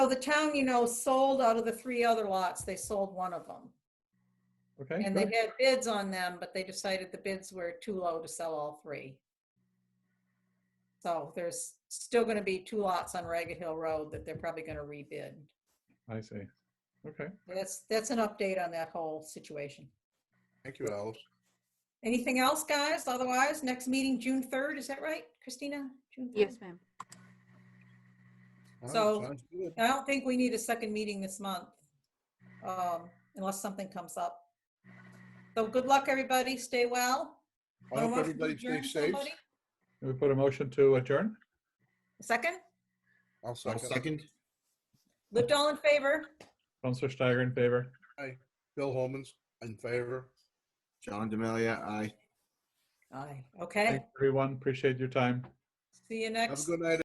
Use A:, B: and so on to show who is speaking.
A: So the town, you know, sold out of the three other lots, they sold one of them.
B: Okay,
A: And they
B: good.
A: had bids on them, but they decided the bids were too low to sell all three. So there's still going to be two lots on Ragged Hill Road that they're probably going to rebid.
B: I see. Okay,
A: That's, that's an update on that whole situation.
C: Thank you, Alice.
A: Anything else, guys? Otherwise, next meeting, June 3rd, is that right, Christina? June 3rd?
D: Yes, ma'am.
C: All right,
A: So-
C: sounds good.
A: I don't think we need a second meeting this month, um, unless something comes up. So good luck, everybody. Stay well.
C: I hope
A: Wanna
C: everybody
A: adjourn,
C: stays safe.
A: somebody?
B: Can we put a motion to adjourn?
A: Second?
C: I'll
E: I'll
C: second.
E: second.
A: Lived all in favor?
B: Counselor Steiger in favor.
C: Bill Holman's in favor.
E: John Demalia, aye.
A: Aye. Okay,
B: Thanks, everyone. Appreciate your time.
A: see you
C: Have a
A: next.
C: good night,